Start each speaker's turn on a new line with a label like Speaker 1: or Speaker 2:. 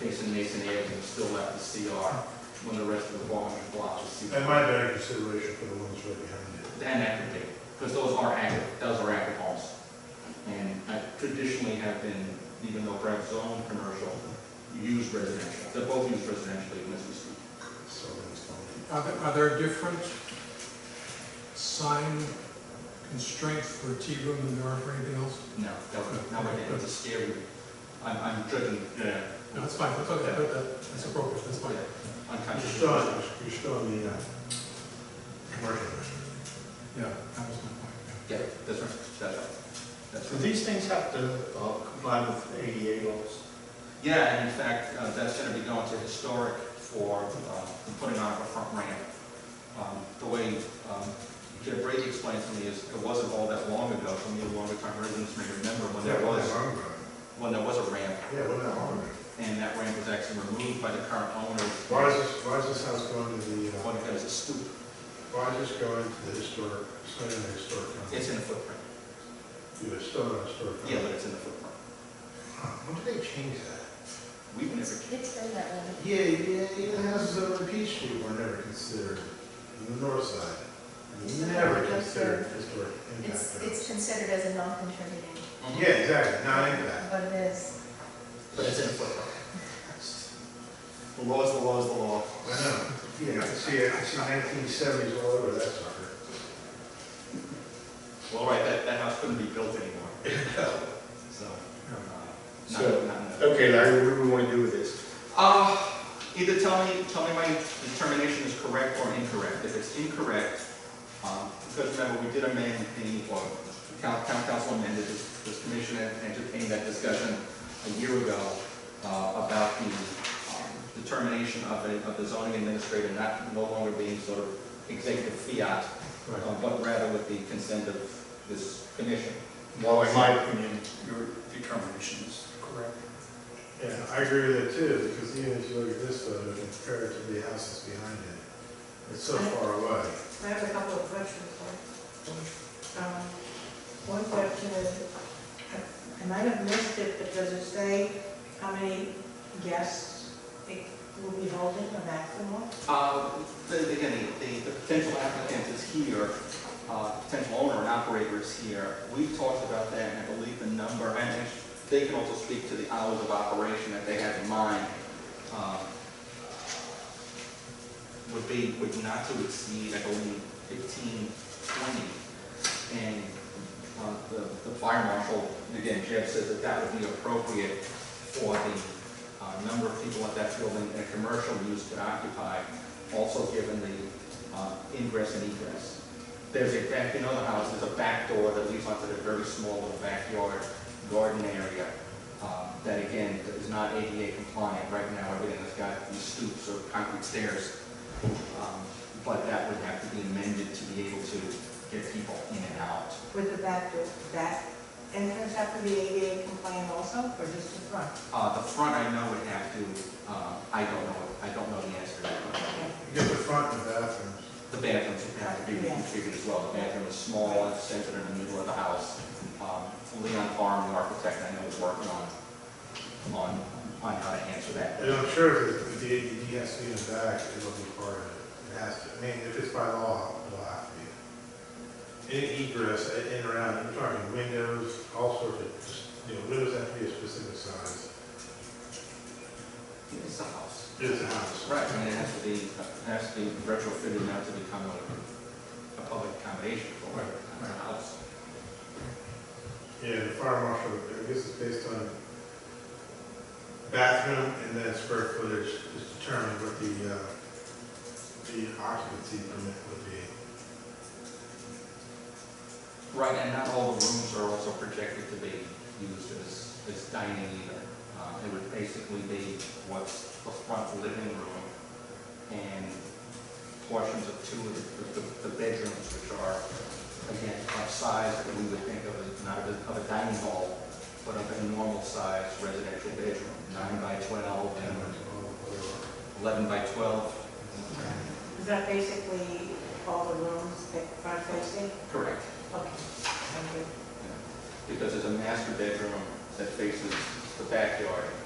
Speaker 1: Mason Mason Avenue still left the CR when the rest of the Balmain block was CR.
Speaker 2: That might be a consideration for the ones right behind it.
Speaker 1: Then that could be, because those are active, those are active homes. And I traditionally have been, even though Brett's own commercial, used residential, they're both used residentially in this district.
Speaker 2: So that's fine.
Speaker 3: Are there, are there different sign constraints for tea room than there are for anything else?
Speaker 1: No, definitely, now we're getting into scary, I'm, I'm driven, yeah,
Speaker 3: No, that's fine, that's okay, that- that- that's appropriate, that's fine.
Speaker 2: You're
Speaker 1: unconscious.
Speaker 2: still, on- you're still on the, uh, commercial district.
Speaker 3: Yeah, that was my point.
Speaker 1: Yeah, that's right, that's right, that's
Speaker 4: Do
Speaker 1: right.
Speaker 4: these things have to uh, comply with ADA laws?
Speaker 1: Yeah, and in fact, uh, that's gonna be going to historic for, uh, putting on a front ramp. Um, the way, um, Jeff Brady explained to me is, it wasn't all that long ago, some of you longer time residents may remember when there
Speaker 2: Yeah, well,
Speaker 1: was,
Speaker 2: that's on there.
Speaker 1: when there was a ramp,
Speaker 2: Yeah, well, that's on there.
Speaker 1: and that ramp was actually removed by the current owner.
Speaker 2: Why is this, why is this house going to the, uh,
Speaker 1: When it was a stoop,
Speaker 2: why is this going to the historic, it's not in the historic company?
Speaker 1: it's in the footprint,
Speaker 2: Yeah, it's still in the historic
Speaker 1: yeah,
Speaker 2: company.
Speaker 1: but it's in the footprint.
Speaker 2: When did they change that?
Speaker 1: We've never,
Speaker 5: It's it's been that way.
Speaker 2: Yeah, yeah, even houses over on Peachtree were never considered, on the north side, never considered historic
Speaker 5: It's,
Speaker 2: impact.
Speaker 5: it's considered as a non-contributing,
Speaker 2: Yeah, exactly, not impact.
Speaker 5: but it is.
Speaker 1: but it's in the footprint. The law's the law's the law.
Speaker 2: I know, yeah, I can see it, I see nineteen seventies all over that sucker.
Speaker 1: Well, right, that, that house couldn't be built anymore. So, uh, not,
Speaker 4: So-
Speaker 1: not enough.
Speaker 4: Okay, Larry, what do we want to do with this?
Speaker 1: Uh, either tell me, tell me my determination is correct or incorrect. If it's incorrect, um, because remember, we did amend the, or town, town council amended this, this commission and entertained that discussion a year ago, uh, about the, um, determination of a, of the zoning administrator not, no longer being sort of executive fiat, uh, but rather with the consent of this commission.
Speaker 4: Well, in my opinion, your determination is correct.
Speaker 2: Yeah, I agree with that too, because even if you look at this photo, compare it to the houses behind it, it's so far away.
Speaker 6: I have a couple of questions, sorry. Um, One question is, I might have missed it, but does it say how many guests it will be holding, a maximum?
Speaker 1: Uh, the- Again, the- the the potential applicant is here, uh, potential owner and operator is here. We've talked about that, and I believe the number, and they can also speak to the hours of operation that they have in mind, um, would be, would not to exceed, I believe, 15, 20. And uh, the the fire marshal, again, Jeff said that that would be appropriate for the uh, number of people at that building that commercial use could occupy, also given the uh, ingress and egress. There's a back, in other houses, a back door that leads onto the very small little backyard garden area um, that again is not ADA compliant. Right now, everything has got these stoops or concrete stairs. um, But that would have to be amended to be able to get people in and out.
Speaker 6: With the back door, that entrance have to be ADA compliant also, or just the front?
Speaker 1: Uh, The front, I know would have to, uh, I don't know, I don't know the answer to that question.
Speaker 6: Okay.
Speaker 2: You get the front and the bathrooms.
Speaker 1: The bathrooms would have to be reconfigured as well. The bathroom is small, it's centered in the middle of the house. Um, Leon Farm, the architect, I know is working on, on, on how to answer that.
Speaker 2: And I'm sure if it's- if the ADD has to be in the back, it'll be part of it. It has to, I mean, if it's by law, it'll have to be. Any egress in in or out, I'm talking windows, all sorts of, just, you know, windows have to be a specific size.
Speaker 1: It's a house.
Speaker 2: It is a house.
Speaker 1: Right, and it has to be, it has to be retrofitted now to become a, a public accommodation for
Speaker 2: Right,
Speaker 1: a house.
Speaker 2: Yeah, the fire marshal, I guess it's based on bathroom and then square footage is determined what the, uh, the occupancy permit would be.
Speaker 1: Right, and not all the rooms are also projected to be used as, as dining either. Uh, it would basically be what's the front living room and portions of two of the, the- the bedrooms, which are, again, of size that we would think of as, not of a, of a dining hall, but of a normal size residential bedroom, nine by twelve
Speaker 2: And,
Speaker 1: and
Speaker 2: uh, whatever.
Speaker 1: eleven by twelve.
Speaker 6: Is that basically all the rooms that are facing?
Speaker 1: Correct.
Speaker 6: Okay, thank you.
Speaker 1: Because there's a master bedroom that faces the backyard,